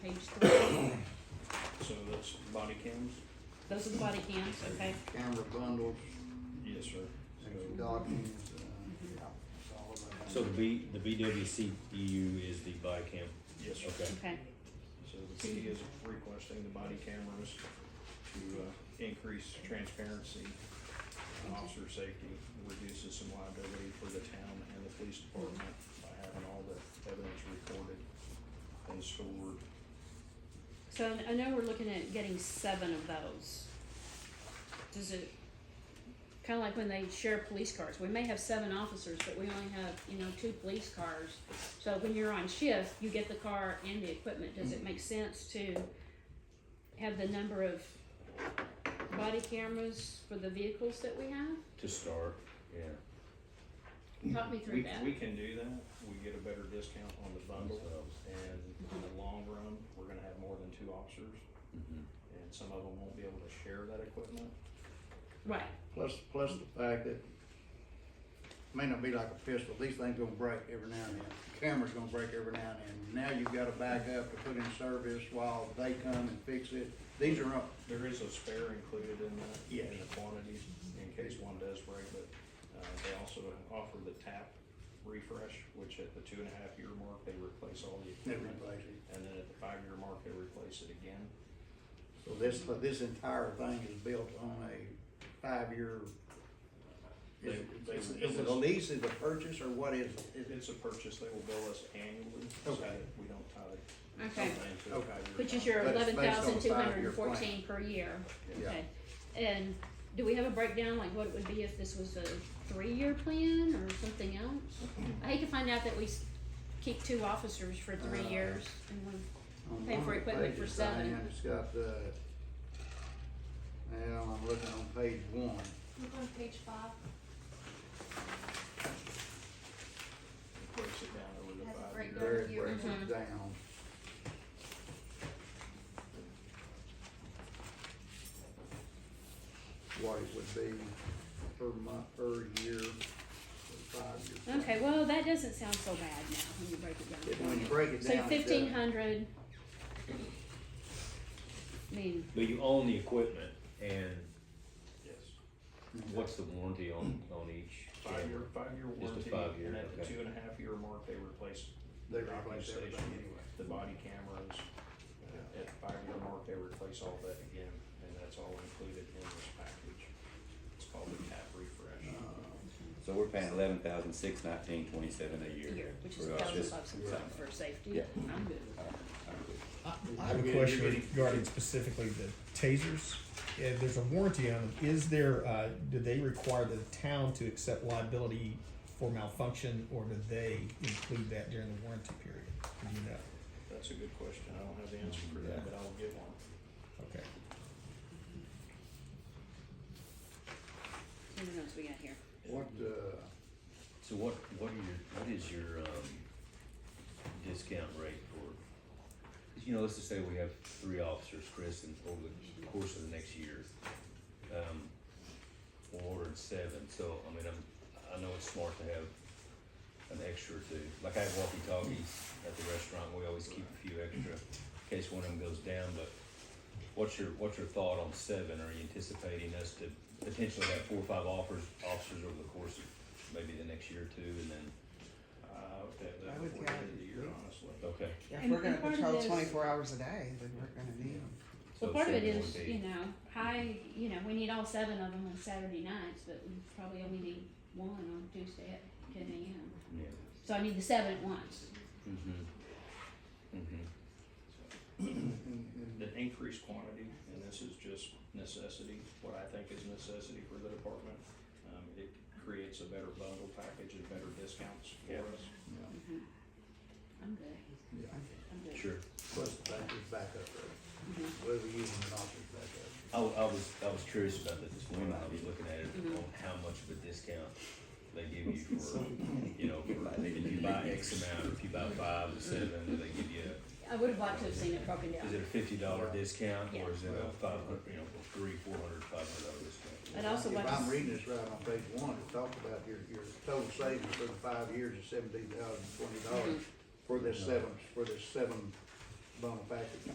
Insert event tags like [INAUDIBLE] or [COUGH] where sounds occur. there's three. So that's body cams? Those are the body cams, okay? Camera bundles, Yes, sir. and So- documents, uh, yeah, it's all of that. So the B, the BWCEU is the body cam, Yes, sir. okay. Okay, So the PD is requesting the body cameras to uh, increase transparency, and officer safety, reduces some liability for the town and the police department by having all the evidence recorded and stored. so I know we're looking at getting seven of those. Does it, kinda like when they share police cars, we may have seven officers, but we only have, you know, two police cars. So when you're on shift, you get the car and the equipment, does it make sense to have the number of body cameras for the vehicles that we have? to start, yeah. Talk me We, through that. we can do that, we get a better discount on the bundle, and in the long run, we're gonna have more than two officers, Mhm. and some of them won't be able to share that equipment. Right, Plus, plus the fact that, may not be like a pistol, these things gonna break every now and then, camera's gonna break every now and then. Now you've gotta back up to put in service while they come and fix it, these are up, There is a spare included in that, in the Yes. quantities, in case one does break, but, uh, they also offer the tap refresh, which at the two and a half year mark, they replace all the they equipment. replace it. And then at the five year mark, they replace it again. So this, but this entire thing is built on a five-year. Is it- They- they- is it- is it a lease, is it a purchase, or what is it? Is it- It's a purchase, they will bill us annually, so Okay. that we don't tie it. okay. something to a Okay. five-year Which is contract. your But it's eleven based on thousand two hundred five-year and plan. fourteen per year, Yeah. okay? And do we have a breakdown, like what it would be if this was a three-year plan or something else? I hate to find out that we s- keep two officers for three Uh, years and we, on Pay for one of the equipment for pages, seven. Diane, It's got the, well, I'm looking on page one. Look on page five, Breaks it down over the Has a five year. breakdown. There it Year. breaks Mhm. it down. What it would be per month, per year, for five years. okay, well, that doesn't sound so bad now when you break it When you down. break it down. it So does. fifteen hundred. I mean, But you own the equipment, and Yes. what's the warranty on, on each? Five year, camera? five year Just a warranty, five-year, and at the okay. two and a half year mark, they replace They the docking replace everything station, anyway. The body cameras, uh, at the five year mark, they replace all that again, and that's all included in this package. It's called the tap uh, refresh. So we're paying eleven thousand six nineteen twenty-seven a year. here, which is for a us thousand just- bucks yeah. for safety, Yeah. I'm good with that. I have a question regarding specifically the tasers. Yeah, there's a warranty on them. Is there, uh, do they require the town to accept liability for malfunction or do they include that during the warranty period? Do you know? That's a good question, I don't have the answer for that, but I'll get one. Okay. Who knows we got here? What, uh, So what, what are your, what is your, um, discount rate for, you know, let's just say we have three officers, Chris, and over the course of the next year, um, we're ordering seven, so, I mean, I'm, I know it's smart to have an extra or two, like I have walkie-talkies at the restaurant, we always keep a few extra in case one of them goes down, but what's your, what's your thought on seven? Are you anticipating us to potentially have four or five offers, officers over the course of maybe the next year or two, and then, Uh, okay, I that would before the count end of the year, it. honestly. Yeah, okay. if And- we're gonna and part of patrol this- twenty-four hours a day, then we're gonna need them. so Well, part of it seven is, would be- you know, high, you know, we need all seven of them on Saturday nights, but we probably only need one on Tuesday at ten AM. Yeah. So I need the seven at once. Mm-hmm. Mm-hmm. [CLEARS THROAT] [CLEARS THROAT] The increased quantity, and this is just necessity, what I think is necessity for the department, um, it creates a better bundle package and better discounts for us. I'm good, yeah, I'm good. Sure. plus the back is backup, right? Mhm. Whether you use an office backup. I, I was, I was curious about that this morning, I'll be looking at it, Mm-hmm. on how much of a discount they give you for, you know, for, if you buy X amount, or if you buy five or seven, Mm-hmm. do they give you, a- I would have liked to have seen it broken is it down. a fifty dollar discount, Yeah. or is it a five hundred, you know, three, four hundred, five hundred dollar discount? I'd also like If to, I'm s- reading this right on page one, it talks about your, your total savings for the five years Mm-hmm. is seventeen thousand twenty dollars for this seven, for this seven bundle package.